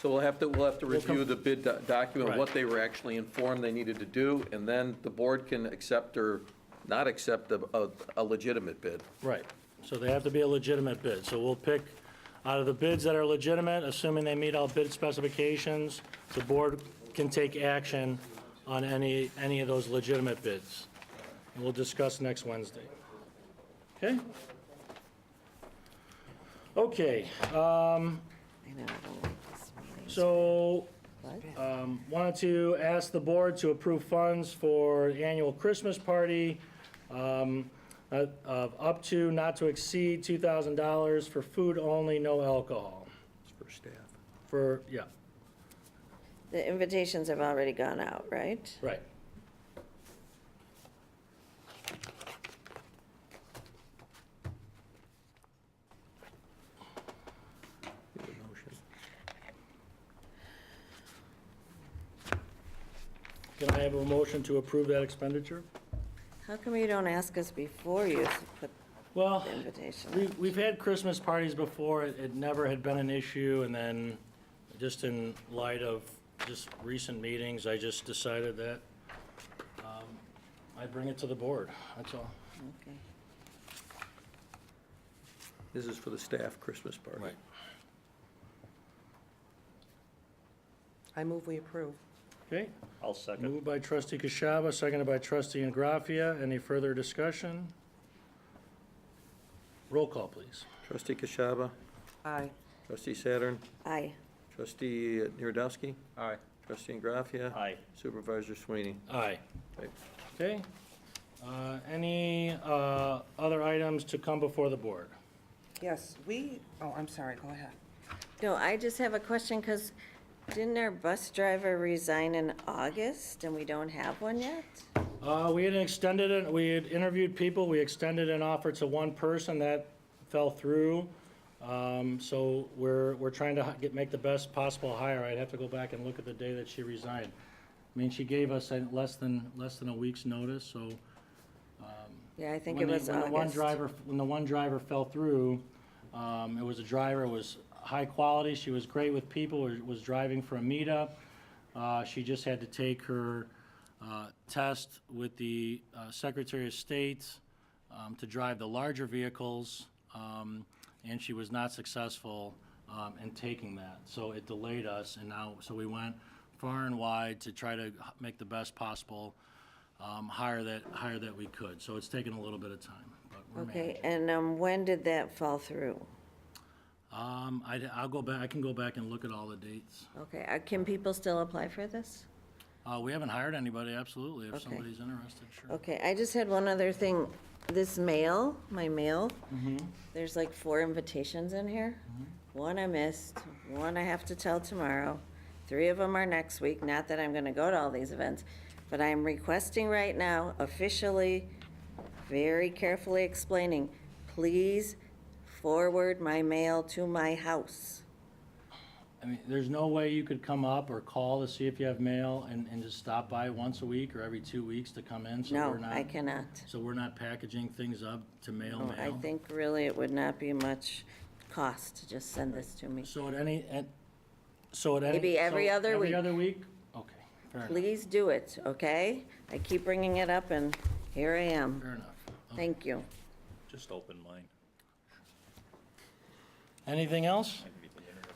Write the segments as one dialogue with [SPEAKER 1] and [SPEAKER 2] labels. [SPEAKER 1] So we'll have to, we'll have to review the bid do- document,
[SPEAKER 2] Right.
[SPEAKER 1] what they were actually informed they needed to do, and then the board can accept or not accept a, a- a legitimate bid.
[SPEAKER 2] Right, so they have to be a legitimate bid, so we'll pick out of the bids that are legitimate, assuming they meet all bid specifications, the board can take action on any, any of those legitimate bids. And we'll discuss next Wednesday. Okay? Okay,
[SPEAKER 3] I know, I don't like this meeting.
[SPEAKER 2] so
[SPEAKER 3] What?
[SPEAKER 2] um, wanted to ask the board to approve funds for the annual Christmas party um, uh, of up to, not to exceed $2,000 for food only, no alcohol.
[SPEAKER 1] For staff.
[SPEAKER 2] For, yeah,
[SPEAKER 3] The invitations have already gone out, right?
[SPEAKER 2] right. Can I have a motion to approve that expenditure?
[SPEAKER 3] How come you don't ask us before you put
[SPEAKER 2] Well,
[SPEAKER 3] the invitation?
[SPEAKER 2] we, we've had Christmas parties before, it, it never had been an issue, and then, just in light of just recent meetings, I just decided that, um, I bring it to the board, that's all.
[SPEAKER 3] Okay.
[SPEAKER 1] This is for the staff Christmas party.
[SPEAKER 4] I move we approve.
[SPEAKER 2] Okay,
[SPEAKER 5] I'll second.
[SPEAKER 2] moved by trustee Kashaba, seconded by trustee Ingraffia, any further discussion? Roll call, please.
[SPEAKER 1] Trustee Kashaba,
[SPEAKER 4] Aye.
[SPEAKER 1] trustee Saturn,
[SPEAKER 3] Aye.
[SPEAKER 1] trustee Nierdowski,
[SPEAKER 5] Aye.
[SPEAKER 1] trustee Graffia,
[SPEAKER 5] Aye.
[SPEAKER 1] supervisor Sweeney.
[SPEAKER 2] Aye.
[SPEAKER 1] Okay.
[SPEAKER 2] Okay, uh, any, uh, other items to come before the board?
[SPEAKER 4] Yes, we, oh, I'm sorry, go ahead.
[SPEAKER 3] No, I just have a question, because didn't our bus driver resign in August, and we don't have one yet?
[SPEAKER 2] Uh, we had extended it, we had interviewed people, we extended an offer to one person that fell through. Um, so we're, we're trying to hi- get, make the best possible hire. I'd have to go back and look at the day that she resigned. I mean, she gave us uh, less than, less than a week's notice, so.
[SPEAKER 3] Yeah, I think
[SPEAKER 2] when
[SPEAKER 3] it
[SPEAKER 2] the- When
[SPEAKER 3] was
[SPEAKER 2] the one
[SPEAKER 3] August.
[SPEAKER 2] driver, when the one driver fell through, um, it was a driver, it was high quality, she was great with people, was- was driving for a meetup. Uh, she just had to take her, uh, test with the uh, Secretary of State, um, to drive the larger vehicles, um, and she was not successful, um, in taking that. So it delayed us, and now, so we went far and wide to try to h- make the best possible, um, higher that, higher that we could. So it's taken a little bit of time, but we're
[SPEAKER 3] Okay,
[SPEAKER 2] managing.
[SPEAKER 3] and um, when did that fall through?
[SPEAKER 2] Um, I, I'll go back, I can go back and look at all the dates.
[SPEAKER 3] Okay, uh, can people still apply for this?
[SPEAKER 2] Uh, we haven't hired anybody, absolutely, if
[SPEAKER 3] Okay.
[SPEAKER 2] somebody's interested, sure.
[SPEAKER 3] Okay, I just had one other thing. This mail, my mail,
[SPEAKER 2] Mm-hmm.
[SPEAKER 3] there's like four invitations in here. One I missed, one I have to tell tomorrow. Three of them are next week. Not that I'm going to go to all these events, but I am requesting right now officially, very carefully explaining, please forward my mail to my house.
[SPEAKER 2] I mean, there's no way you could come up or call to see if you have mail and, and just stop by once a week or every two weeks to come in, so
[SPEAKER 3] No,
[SPEAKER 2] we're
[SPEAKER 3] I
[SPEAKER 2] not,
[SPEAKER 3] cannot.
[SPEAKER 2] so we're not packaging things up to mail
[SPEAKER 3] No,
[SPEAKER 2] mail.
[SPEAKER 3] I think really it would not be much cost to just send this to me.
[SPEAKER 2] So at any, at, so at any.
[SPEAKER 3] Maybe every
[SPEAKER 2] so
[SPEAKER 3] other
[SPEAKER 2] Every
[SPEAKER 3] week.
[SPEAKER 2] other week? Okay, fair enough,
[SPEAKER 3] Please do it, okay? I keep bringing it up, and here I am.
[SPEAKER 2] fair enough.
[SPEAKER 3] Thank you.
[SPEAKER 5] Just open mine.
[SPEAKER 2] Anything else?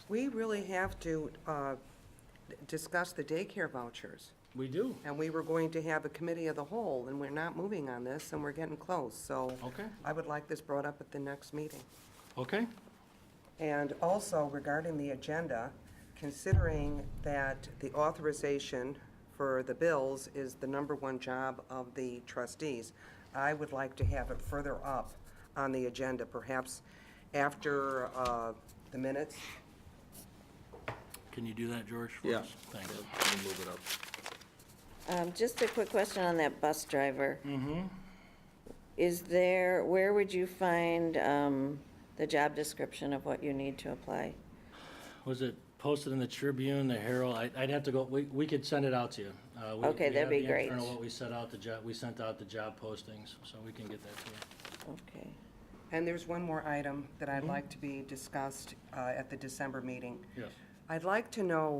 [SPEAKER 4] We really have to uh, discuss the daycare vouchers,
[SPEAKER 2] We do,
[SPEAKER 4] and we were going to have a committee of the whole, and we're not moving on this, and we're getting close, so.
[SPEAKER 2] Okay.
[SPEAKER 4] I would like this brought up at the next meeting.
[SPEAKER 2] okay,
[SPEAKER 4] And also regarding the agenda, considering that the authorization for the bills is the number one job of the trustees, I would like to have it further up on the agenda, perhaps after uh, the minutes.
[SPEAKER 2] can you do that, George, for
[SPEAKER 1] Yeah.
[SPEAKER 2] us? Thanks.
[SPEAKER 1] Let me Move it up.
[SPEAKER 3] Um, Just a quick question on that bus driver. Is there, where would you find um, the job description of what you need to apply?
[SPEAKER 2] Was it posted in the Tribune, the Herald? I- I'd have to go, we we could send it out to you. Uh, we-
[SPEAKER 3] Okay,
[SPEAKER 2] we
[SPEAKER 3] that'd
[SPEAKER 2] have
[SPEAKER 3] be
[SPEAKER 2] the
[SPEAKER 3] great.
[SPEAKER 2] internal, What we sent out, the job, we sent out the job postings, so we can get that to you.
[SPEAKER 3] Okay.
[SPEAKER 4] And there's one more item that I'd like to be discussed uh, at the December meeting.
[SPEAKER 2] Yes.
[SPEAKER 4] I'd like to know